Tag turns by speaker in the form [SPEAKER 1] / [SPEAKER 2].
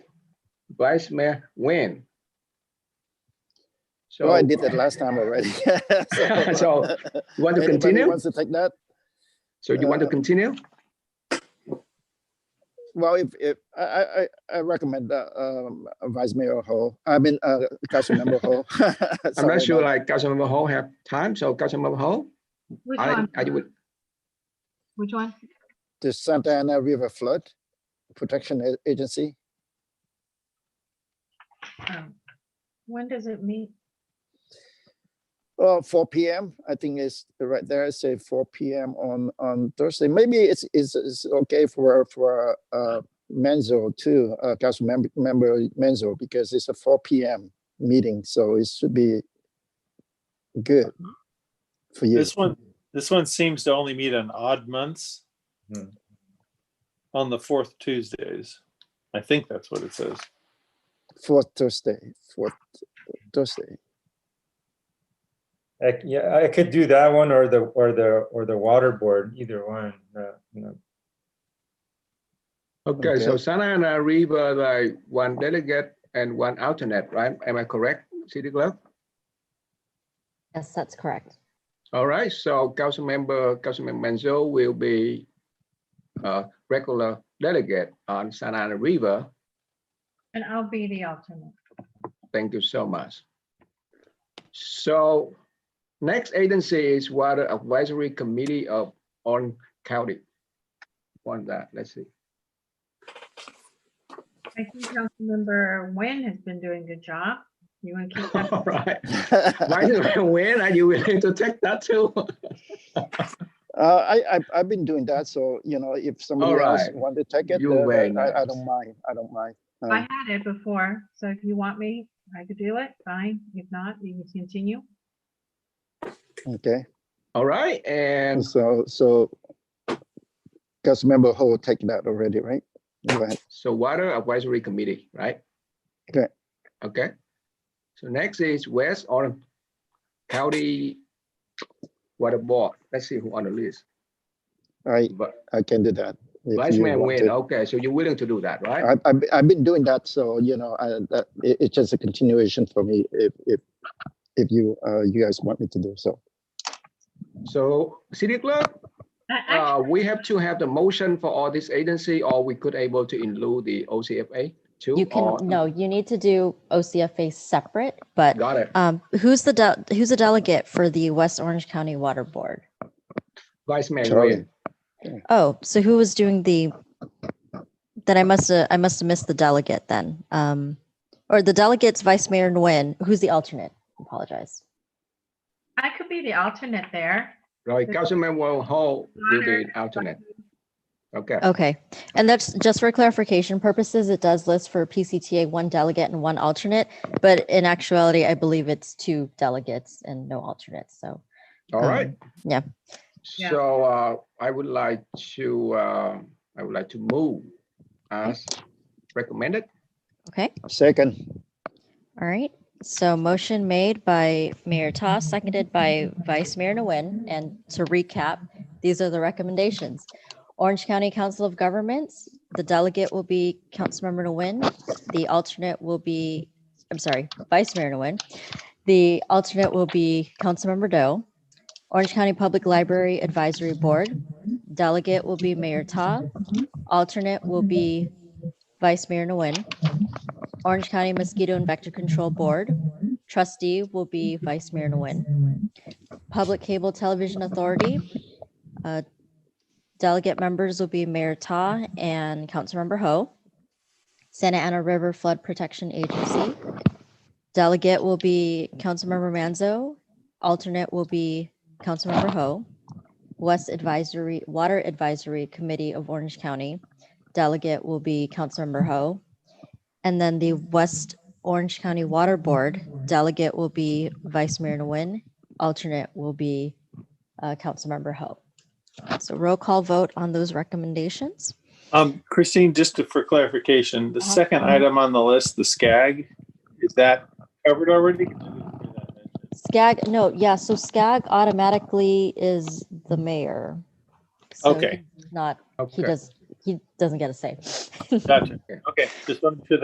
[SPEAKER 1] Vice Mayor Nguyen. So,
[SPEAKER 2] Oh, I did that last time already.
[SPEAKER 1] So, you want to
[SPEAKER 2] anybody Uh,
[SPEAKER 1] continue?
[SPEAKER 2] Wants to take that?
[SPEAKER 1] So you want to continue?
[SPEAKER 2] Well, if, if, I, I, I- I recommend, uh, um, Vice Mayor Ho, I mean, uh, Councilmember Ho.
[SPEAKER 1] I'm
[SPEAKER 2] Sorry
[SPEAKER 1] not sure
[SPEAKER 2] about-
[SPEAKER 1] like Councilmember Ho have time, so Councilmember Ho,
[SPEAKER 3] Which
[SPEAKER 1] I,
[SPEAKER 3] one?
[SPEAKER 1] I would,
[SPEAKER 3] Which one?
[SPEAKER 2] The Santa Ana River Flood Protection A- Agency,
[SPEAKER 3] Um, When does it meet?
[SPEAKER 2] uh, four PM, I think is right there, say four PM on, on Thursday. Maybe it's, it's, it's okay for, for, uh, Menzo too, uh, Councilmember, member Menzo, because it's a four PM meeting, so it should be good for you.
[SPEAKER 4] This one, this one seems to only meet on odd months.
[SPEAKER 5] Hmm.
[SPEAKER 4] On the fourth Tuesdays. I think that's what it says.
[SPEAKER 2] fourth Thursday, fourth Thursday.
[SPEAKER 5] I, yeah, I could do that one or the, or the, or the water board, either one. uh, you know.
[SPEAKER 1] okay, so
[SPEAKER 2] Okay.
[SPEAKER 1] Santa Ana River, like one delegate and one alternate, right? Am I correct, City Clerk?
[SPEAKER 6] Yes, that's correct.
[SPEAKER 1] All right, so Councilmember, Councilmember Manzo will be a regular delegate on Santa Ana River.
[SPEAKER 3] And I'll be the alternate.
[SPEAKER 1] Thank you so much. So next agency is Water Advisory Committee of Orange County. On that, let's see.
[SPEAKER 3] I think Councilmember Nguyen has been doing a good job. You want to keep that?
[SPEAKER 1] All right. Why do I win? Are you willing to take that too?
[SPEAKER 2] Uh, I, I, I've been doing that, so, you know, if somebody else
[SPEAKER 1] Alright.
[SPEAKER 2] wanted to take it,
[SPEAKER 1] You're
[SPEAKER 2] uh,
[SPEAKER 1] very
[SPEAKER 2] I, I
[SPEAKER 1] nice.
[SPEAKER 2] don't mind, I don't mind.
[SPEAKER 3] I
[SPEAKER 2] Uh,
[SPEAKER 3] had it before, so if you want me, I could do it, fine. If not, you can continue.
[SPEAKER 2] um, Okay,
[SPEAKER 1] All right, and
[SPEAKER 2] so, so Councilmember Ho will take that already, right? Go ahead.
[SPEAKER 1] so Water Advisory Committee, right?
[SPEAKER 2] Okay.
[SPEAKER 1] Okay. So next is West Orange County Water Board. Let's see who on the list.
[SPEAKER 2] I,
[SPEAKER 1] Vi-
[SPEAKER 2] I can do that. if
[SPEAKER 1] Vice
[SPEAKER 2] you
[SPEAKER 1] Mayor
[SPEAKER 2] want
[SPEAKER 1] Nguyen,
[SPEAKER 2] to.
[SPEAKER 1] okay, so you're willing to do that, right?
[SPEAKER 2] I, I've, I've been doing that, so, you know, I, that, it, it's just a continuation for me, if, if, if you, uh, you guys want me to do so.
[SPEAKER 1] So City Clerk,
[SPEAKER 3] I-
[SPEAKER 1] uh,
[SPEAKER 3] actually,
[SPEAKER 1] we have to have the motion for all this agency, or we could able to include the OCFA too?
[SPEAKER 6] You can,
[SPEAKER 1] or-
[SPEAKER 6] no, you need to do OCFA separate, but
[SPEAKER 1] Got it.
[SPEAKER 6] um, who's the, del- who's the delegate for the West Orange County Water Board?
[SPEAKER 1] Vice Mayor
[SPEAKER 2] Charlie.
[SPEAKER 1] Nguyen.
[SPEAKER 6] Oh, so who was doing the, then I must have, I must have missed the delegate then. Um, Or the delegate's Vice Mayor Nguyen, who's the alternate? Apologize.
[SPEAKER 3] I could be the alternate there.
[SPEAKER 1] Right, Councilmember Ho will be an alternate. Okay,
[SPEAKER 6] Okay. And that's just for clarification purposes, it does list for PCTA one delegate and one alternate, but in actuality, I believe it's two delegates and no alternates, so.
[SPEAKER 1] all right.
[SPEAKER 6] um, yeah.
[SPEAKER 3] Yeah.
[SPEAKER 1] So uh, I would like to, uh, I would like to move as recommended.
[SPEAKER 6] Okay.
[SPEAKER 2] Second,
[SPEAKER 6] All right, so motion made by Mayor Toss, seconded by Vice Mayor Nguyen. And to recap, these are the recommendations. Orange County Council of Governments, the delegate will be Councilmember Nguyen. The alternate will be, I'm sorry, Vice Mayor Nguyen. The alternate will be Councilmember Doe. Orange County Public Library Advisory Board, delegate will be Mayor Ta. Alternate will be Vice Mayor Nguyen. Orange County Mosquito and Vector Control Board. Trustee will be Vice Mayor Nguyen. Public Cable Television Authority. uh, Delegate members will be Mayor Ta and Councilmember Ho. Santa Ana River Flood Protection Agency. Delegate will be Councilmember Manzo. Alternate will be Councilmember Ho. West Advisory, Water Advisory Committee of Orange County. Delegate will be Councilmember Ho. And then the West Orange County Water Board delegate will be Vice Mayor Nguyen. Alternate will be uh, Councilmember Ho. So roll call vote on those recommendations.
[SPEAKER 4] Um, Christine, just to- for clarification, the
[SPEAKER 3] Uh-huh.
[SPEAKER 4] second item on the list, the SCAG, is that covered already?
[SPEAKER 6] SCAG, no, yeah, so SCAG automatically is the mayor. So
[SPEAKER 4] Okay.
[SPEAKER 6] he's Not, he
[SPEAKER 1] Okay.
[SPEAKER 6] does, he doesn't get a say.
[SPEAKER 4] Gotcha. Okay, just wanted to